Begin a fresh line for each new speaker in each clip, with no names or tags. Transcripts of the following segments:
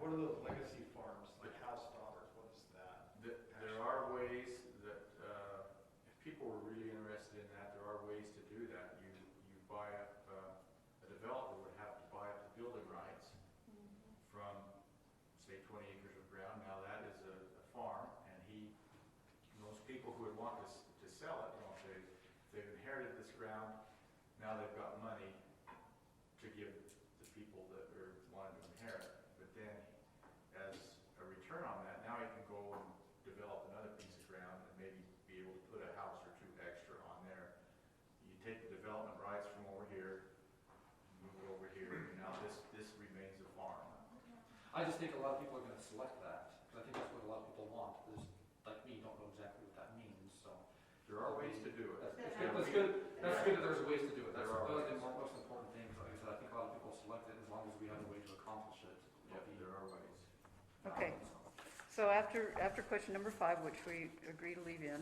the legacy farms, like House Daughters, what is that?
Th- There are ways that, uh, if people were really interested in that, there are ways to do that. You, you buy up, uh, a developer would have to buy up the building rights from, say, twenty acres of ground. Now, that is a, a farm, and he, those people who would want to, s- to sell it, you know, if they, if they've inherited this ground, now they've got money to give the people that are wanting to inherit. But then, as a return on that, now he can go and develop another piece of ground and maybe be able to put a house or two extra on there. You take the development rights from over here, move it over here, and now this, this remains a farm.
I just think a lot of people are gonna select that, because I think that's what a lot of people want, is, like me, don't know exactly what that means, so.
There are ways to do it.
That's,
That's
it's good, that's
we-
good, that's
yeah.
good that there's ways to do it, that's,
There are
those are the
ways.
mo- most important things, like I said, I think a lot of people select it as long as we have a way to accomplish it.
Yep, there are ways.
Okay. So after, after question number five, which we agree to leave in,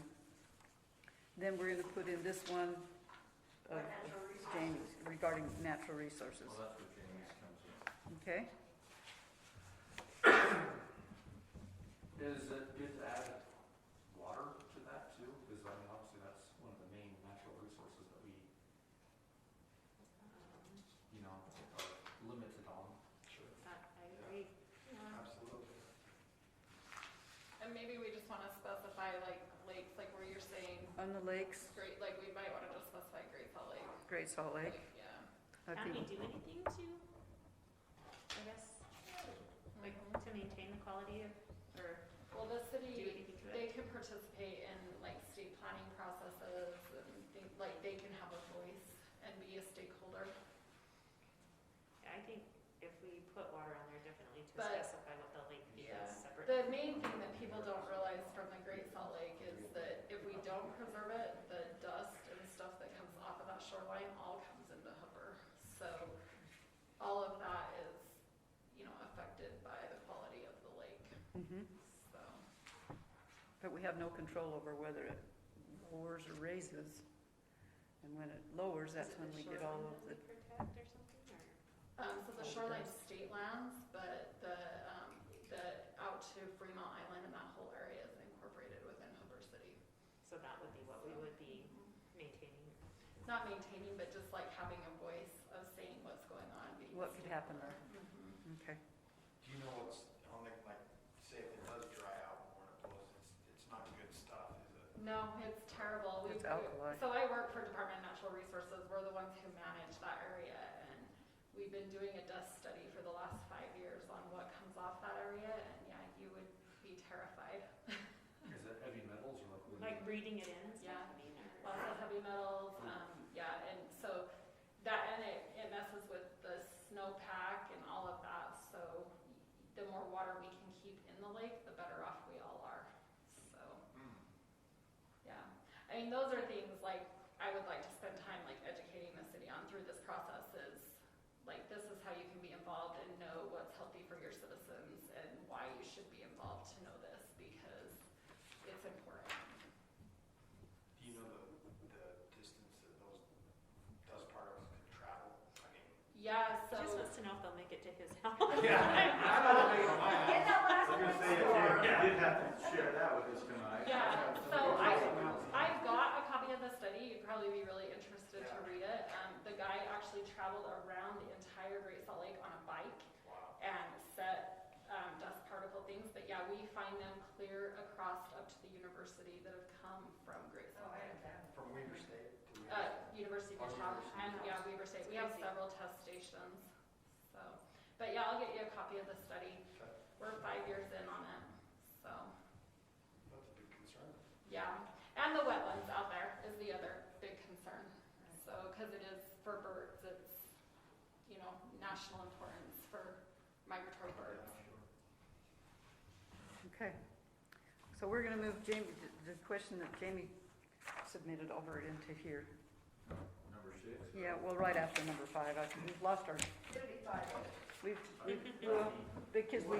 then we're gonna put in this one of
Natural resources.
Jamie's regarding natural resources,
Well, that's where Jamie's comes in.
okay?
Is it good to add water to that too? Because I mean, obviously, that's one of the main natural resources that we, you know, are limited on.
Sure.
I agree.
Absolutely.
And maybe we just wanna specify like lakes, like where you're saying,
On the lakes,
great, like we might wanna just specify Great Salt Lake.
Great Salt Lake,
Like, Yeah.
I
Can
think,
we do anything to, I guess, like, to maintain the quality of, or
Well, the
do
city,
anything to it?
they can participate in like state planning processes and think, like they can have a voice and be a stakeholder.
I think if we put water on there, definitely to
But-
specify what the lake is
Yeah.
separate.
The main thing that people don't realize from the Great Salt Lake is that if we don't preserve it, the dust and stuff that comes off of that shoreline all comes into Hooper. So all of that is, you know, affected by the quality of the lake,
mhm.
so.
But we have no control over whether it lowers or raises. And when it lowers, that's when we get all of the,
Is it the shoreline that we protect or something, or?
Um, so the shoreline's state lands, but the, um, the out to Fremont Island and that whole area is incorporated within Hooper City.
So that would be what we would be maintaining.
Not maintaining, but just like having a voice of saying what's going on, being a
what could happen
stakeholder.
there,
Mhm.
okay?
Do you know what's on the, like, say if it does dry out more and it blows, it's, it's not good stuff, is it?
No, it's terrible. We-
It's alkali.
So I work for Department of Natural Resources. We're the ones who manage that area and we've been doing a dust study for the last five years on what comes off that area and yeah, you would be terrified.
Is it heavy metals or like? what is
Mm-hmm.
Like
it?
breeding it in, is
Yeah.
that what you mean, or?
Lots of heavy metals, um, yeah, and so that, and it, it messes with the snowpack and all of that. So the more water we can keep in the lake, the better off we all are, so.
Mm.
Yeah, I mean, those are things like I would like to spend time like educating the city on through this process is like this is how you can be involved and know what's healthy for your citizens and why you should be involved to know this because it's important.
Do you know the, the distance that those dust particles can travel? I mean.
Yeah,
He
so
Just wants to know if they'll make it to his house.
I'm not making my
Get that last
I'm
one
gonna say, if
scored.
you- you did have to share that with us tonight.
Yeah, so I, I've got a copy of the study, you'd probably be really interested to read it. Um, the guy actually traveled around the entire Great Salt Lake on a bike
Wow.
and set um, dust particle things. But yeah, we find them clear across up to the university that have come from Great Salt Lake.
From Weaver State to Weaver.
Uh, University of
Oh,
Utah
University.
and yeah, Weaver State. We have
Crazy.
several test stations. So, but yeah, I'll get you a copy of the study.
Okay.
We're five years in on it. So
State. That's a big concern.
yeah, and the wetlands out there is the other big concern. So because it is for birds, it's you know national importance for migratory birds.
Okay. So we're gonna move Jamie, the the question that Jamie submitted over into here.
Number six.
Yeah, well, right after number five, I, we've lost our, we've, we've, well, because we,